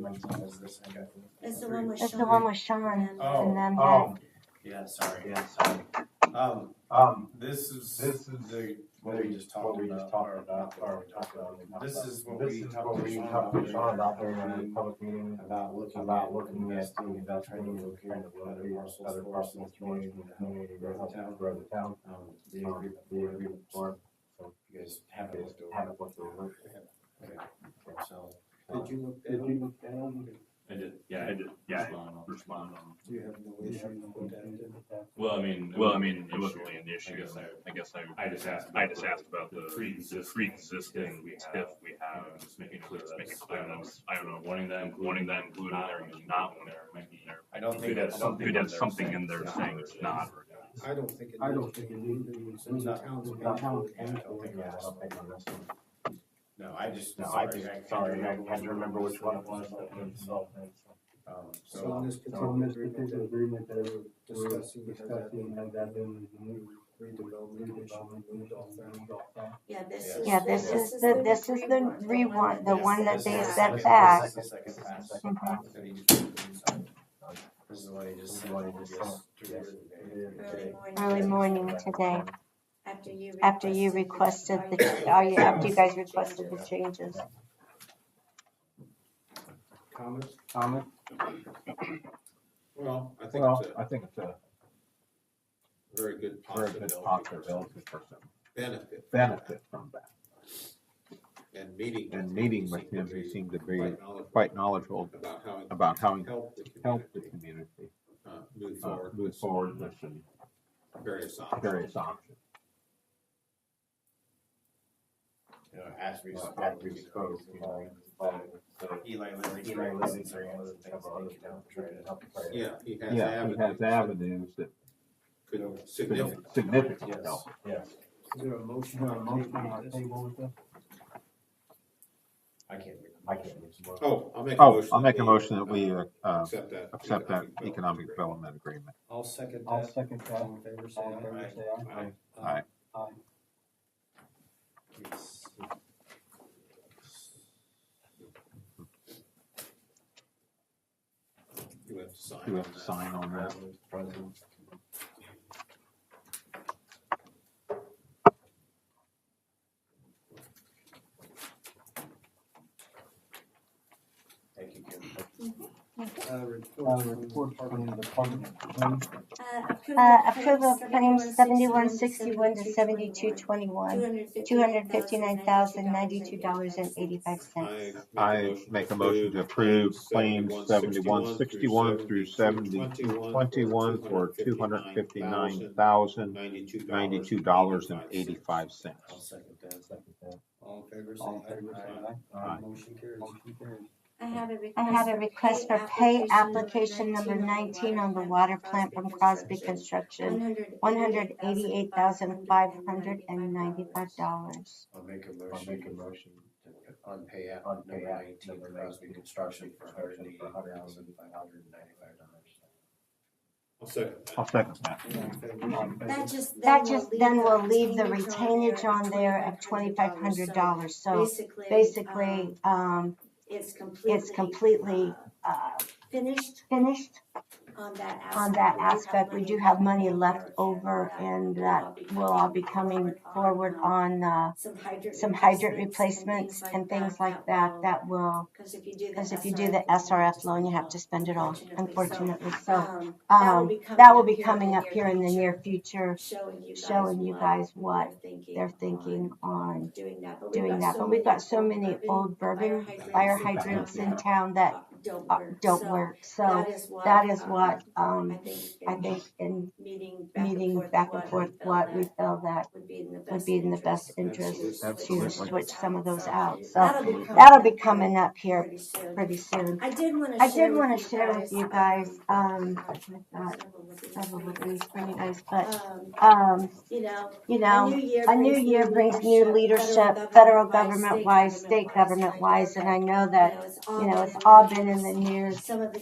mentioned as this, I got. That's the one with That's Sean. the one with Sean And, uh, Oh, and them. oh, yeah, Oh, sorry, yeah, sorry. Um, Um, this is. this is The, what we just talked about, or not, or we talked about. This is what This we is talked what to we Sean talked to about Sean during our about during our meeting public meeting. about looking. About looking at investing, doing about that trying to look kind into of other parcels other for us in parcels the community, community. community, grow the town, grow the town. Um, the agreement, the agreement form, you guys have it looked Have over. it looked over. So, Um, did you look, did you look down? I did, yeah, I did, yeah, I responded. Do you have no issue? with that? Well, I mean. Well, I mean, it wasn't really an I issue. guess I, I guess I, I just asked. I just asked about the Pre-existing. pre-existing If TIF we Uh, have. just making clear Let's make it that's, clear I don't know, that's, I don't know, wanting that included. wanting that included in there, or not wanting wanting there, might be. I don't think Could have that's something. could have that they're something saying in there it's saying it's not. I don't think it I don't is. think it Since the town's Yeah, I don't paying think for it. on this one. No, I just. No, I just, sorry, I had to remember which one it was. that we resolved that. Um, So so, on this So on particular this agreement, particular that agreement that we're we're discussing, discussing, discussing, has that been removed? redevelopment commission removed off that. Yeah, this Yeah. is. Yeah, this is the, this is the rewind, the one that they sent back. This is the second pass. Mhm. that he just- This is what he just said. Yes. Early morning. Early morning today, After you. after you requested the, are you, after you guys requested the changes. Comments? Comment? Well, I think Well, it's I think it's a uh, a very good very good possibility. possibility for some Benefit benefit from that. and meeting. And with meeting him with him, he seemed to be Quite knowledgeable quite knowledgeable about how it about how he can help the helped the community, community uh, move uh, forward move with forward with some various options. various options. You know, as we Well, spoke. as we spoke, you know, um, so Eli Lilly's. Eli Lilly's are one of the a things couple they other can help try trying to to help the player. Yeah, he has Yeah, he has avenues. avenues that Could could significant. significantly Yes. help. Yes. Is there a motion? I can't. read. I can't reach the ball. Oh, I'll make a Oh, motion. I'll make a we, motion uh, that we uh, uh, Accept that. accept that development economic development agreement. I'll second I'll second that. in favor, All in favor, say aye. Aye. Aye. Aye. agreement. You have to sign. You on have to that. sign on that. Thank you, Kim. Uh, Uh, report report from from the the department. of Claims. Uh, approval of claims seventy-one sixty-one to seventy-two twenty-one, two hundred fifty-nine thousand ninety-two dollars and eighty-five I cents. I make a motion to approve claims seventy-one sixty-one through seventy twenty-one for two hundred fifty-nine thousand ninety-two dollars and eighty-five I'll cents. second that. Second that. All in favor, say All in favor, say aye. aye. Aye. Motion carries. Motion carries. I have a request. I have a request for pay application number nineteen on the water plant from Crosby Construction, one hundred eighty-eight thousand five hundred and ninety-five dollars. I'll make a I'll motion. make a motion. On pay app, On number pay app, nineteen, number Crosby Construction for hundred and eighty Construction for thousand, five hundred and ninety-five dollars. I'll second I'll second that. that. All in favor, All in favor, That just That just then will leave the retainage on there of twenty-five hundred $2,500. dollars, so So basically, basically, um, it's completely. it's completely, uh, Finished finished on that aspect. on that aspect. We do have money left over and that will all be coming forward on, uh, Some hydrant. some hydrant replacements and things like that, that will, Because if you do the. because if you do the SRF loan, you have to spend it all, unfortunately. Unfortunately, So, Um, um, that will be coming up here in the near future, Showing you guys. showing you what guys what they're thinking they're on thinking on Doing that, but doing that. But we've got so many old bourbon fire hydrants in town that Don't uh, work. don't So work. So is what, that is what, um, I um, think. I think in Meeting back and meeting forth. back and forth, what we felt feel that that Would be in the best. would be in the best interest to Absolutely. switch some of those So out. So That'll be. that'll be coming up here Pretty soon. pretty soon. I did want to. I did want to share with um, you guys, um, uh, not several of these for you guys, but, Um, um, you know, you a know, new year. a new year brings new leadership, federal government wise, state government wise, and I know that, know, it's you know, it's all all been in the news Some of the